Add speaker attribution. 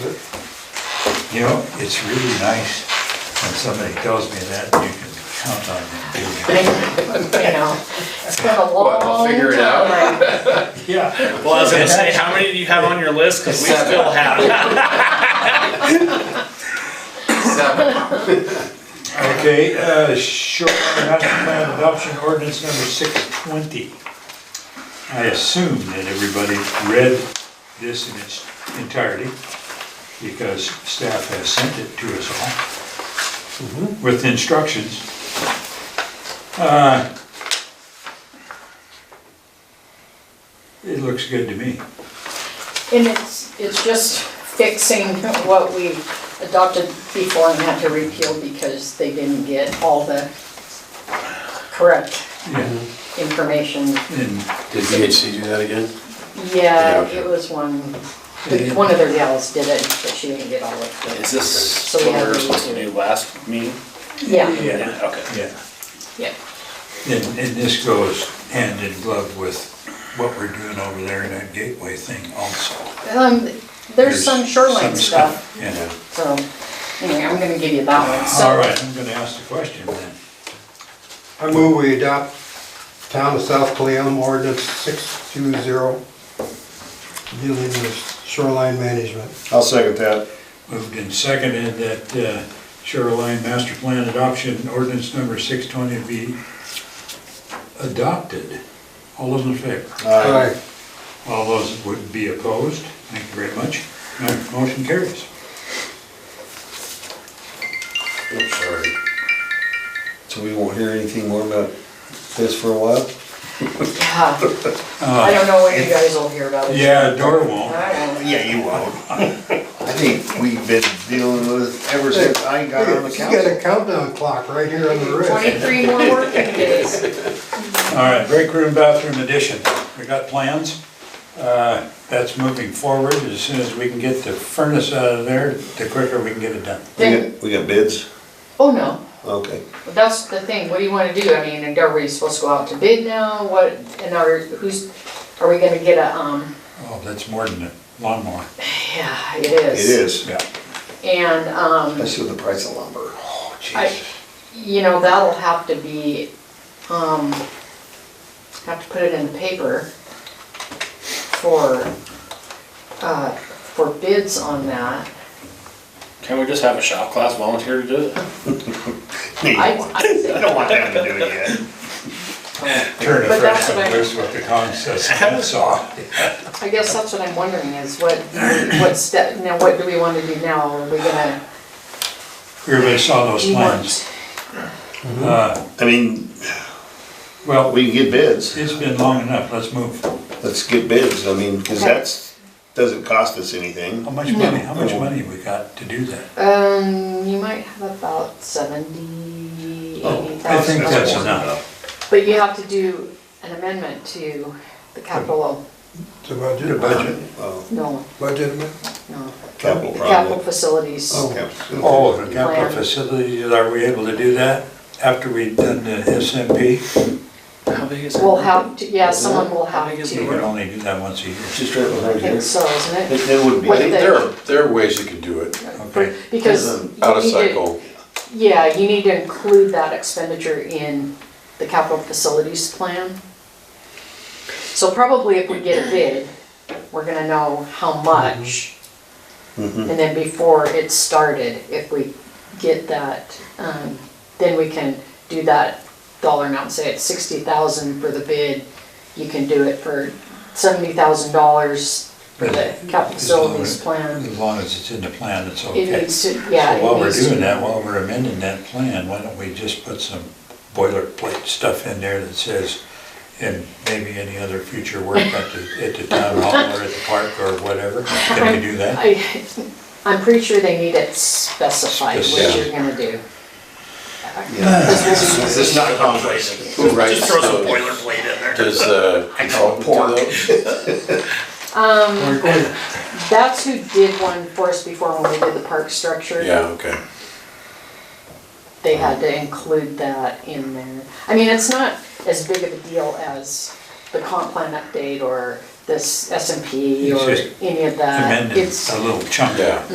Speaker 1: You know, it's really nice when somebody tells me that, you can count on them doing it.
Speaker 2: You know, it's been a long
Speaker 3: What, we'll
Speaker 2: time.
Speaker 3: figure it out?
Speaker 1: Yeah.
Speaker 4: Well, I was gonna say, how many do you have on your list? Cause we still have.
Speaker 3: Seven.
Speaker 1: Okay, uh, shoreline master plan adoption ordinance number six twenty. I assume that everybody read this in its entirety, because staff has sent it to us all with instructions. Uh, It looks good to me.
Speaker 2: And it's, it's just fixing what we adopted before and had to repeal because they didn't get all the correct
Speaker 1: Yeah.
Speaker 2: information.
Speaker 1: And
Speaker 5: Did VHC do that again?
Speaker 2: Yeah,
Speaker 5: Yeah.
Speaker 2: it was one,
Speaker 1: Yeah.
Speaker 2: one of their gals did it, but she didn't get all of it.
Speaker 4: Is this what we were supposed to do last meeting?
Speaker 2: Yeah,
Speaker 1: Yeah.
Speaker 4: Okay.
Speaker 1: Yeah,
Speaker 2: yeah.
Speaker 1: and, and this goes hand in glove with what we're doing over there in that gateway thing also.
Speaker 2: Um, there's some shoreline
Speaker 1: some
Speaker 2: stuff,
Speaker 1: Yeah,
Speaker 2: so, anyway, I'm gonna give you that one. So-
Speaker 1: all right, I'm gonna ask the question then.
Speaker 6: I move we adopt Town of South Clayum Ordinance 620 dealing with shoreline management.
Speaker 5: I'll second that.
Speaker 1: Moved and seconded that uh, shoreline master plan adoption ordinance number six twenty be adopted. All those in favor?
Speaker 6: Aye.
Speaker 1: All those would be opposed? Thank you very much. Uh, Motion carries.
Speaker 5: I'm sorry. So we won't hear anything more about this for a while?
Speaker 2: Yeah.
Speaker 1: Uh,
Speaker 2: I don't know what you guys will hear about it.
Speaker 1: Yeah, Dora won't.
Speaker 2: I don't know.
Speaker 7: Yeah, you won't. I think we've been dealing with it ever since I got on the
Speaker 6: You got
Speaker 7: council.
Speaker 6: a countdown clock right here on the wrist.
Speaker 2: Twenty-three more working days.
Speaker 1: All right, break room bathroom addition. We got plans. Uh, That's moving forward. As soon as we can get the furnace out of there, the quicker we can get it done.
Speaker 7: We
Speaker 2: Then,
Speaker 7: got- We got bids?
Speaker 2: oh no,
Speaker 7: Okay.
Speaker 2: that's the thing, what do you wanna do? I mean, and are we supposed to go out to bid now? What, and are, who's, are we gonna get a, um,
Speaker 1: Oh, that's more than a lawnmower.
Speaker 2: yeah, it
Speaker 7: It
Speaker 2: is.
Speaker 7: is.
Speaker 1: Yeah.
Speaker 2: And, um,
Speaker 7: Especially with the price of lumber. Oh,
Speaker 2: I,
Speaker 7: jeez.
Speaker 2: you know, that'll have to be, um, have to put it in the paper for, uh, for bids on that.
Speaker 4: Can we just have a shop class volunteer to do it?
Speaker 2: I, I think
Speaker 7: I don't want them to do it yet.
Speaker 1: Turn a
Speaker 2: But that's
Speaker 1: freshman
Speaker 2: what I-
Speaker 1: loose with the con says, that's all.
Speaker 2: I guess that's what I'm wondering is what, what step, now what do we want to do now? Are we gonna?
Speaker 1: Everybody saw those plans. Uh,
Speaker 7: I mean,
Speaker 1: Well,
Speaker 7: we can get bids.
Speaker 1: it's been long enough, let's move.
Speaker 7: Let's get bids. I mean, because that's, doesn't cost us anything.
Speaker 1: How much money, how much money we got to do that?
Speaker 2: Um, you might have about seventy, eighty
Speaker 1: Oh, I think
Speaker 2: thousand
Speaker 1: that's
Speaker 2: dollars.
Speaker 1: enough.
Speaker 2: But you have to do an amendment to the capital,
Speaker 6: It's about your
Speaker 7: Budget,
Speaker 6: budget.
Speaker 7: oh,
Speaker 2: no,
Speaker 6: Budget, amendment.
Speaker 2: no,
Speaker 7: capital
Speaker 2: the capital
Speaker 7: project.
Speaker 2: facilities.
Speaker 6: Oh.
Speaker 7: Capital.
Speaker 1: Oh, the capital
Speaker 2: Plan.
Speaker 1: facilities, are we able to do that after we've done the SMP?
Speaker 4: How big is
Speaker 2: We'll have to, yeah, someone will
Speaker 4: How
Speaker 2: have
Speaker 4: big is
Speaker 1: We
Speaker 4: it?
Speaker 2: to,
Speaker 1: can only do that once a year.
Speaker 5: It's just right
Speaker 2: I
Speaker 5: behind
Speaker 2: think
Speaker 5: here.
Speaker 2: so, isn't it?
Speaker 7: It it would be.
Speaker 2: What
Speaker 7: They-
Speaker 2: the-
Speaker 5: There are, there are ways you can do it,
Speaker 1: Okay.
Speaker 2: Because. you
Speaker 5: out of
Speaker 2: need to-
Speaker 5: cycle.
Speaker 2: Yeah, you need to include that expenditure in the capital facilities plan. So probably if we get a bid, we're gonna know how much. And then before it's started, if we get that, um, then we can do that dollar amount, say it's sixty thousand for the bid. You can do it for seventy thousand dollars for the capital
Speaker 1: As long
Speaker 2: facilities
Speaker 1: as-
Speaker 2: plan.
Speaker 1: As long as it's in the plan, it's okay.
Speaker 2: It needs to, yeah.
Speaker 1: So
Speaker 2: it
Speaker 1: while we're
Speaker 2: needs to-
Speaker 1: doing that, while we're amending that plan, why don't we just put some boilerplate stuff in there that says, and maybe any other future work at the, at the town hall or at the park or whatever? Can we do that?
Speaker 2: I, I'm pretty sure they need it specified, what you're gonna do.
Speaker 5: Is this not complex? Who writes
Speaker 4: Just throw some
Speaker 5: those?
Speaker 4: boilerplate in there.
Speaker 5: Does, uh, consultant do those?
Speaker 2: That's who did one for us before when we did the park structure.
Speaker 5: Yeah, okay.
Speaker 2: They had to include that in there. I mean, it's not as big of a deal as the comp plan update or this S and P
Speaker 1: It's
Speaker 2: or
Speaker 1: just
Speaker 2: any of that.
Speaker 1: Amended
Speaker 2: uh, It's
Speaker 1: a little chunk.
Speaker 5: Yeah.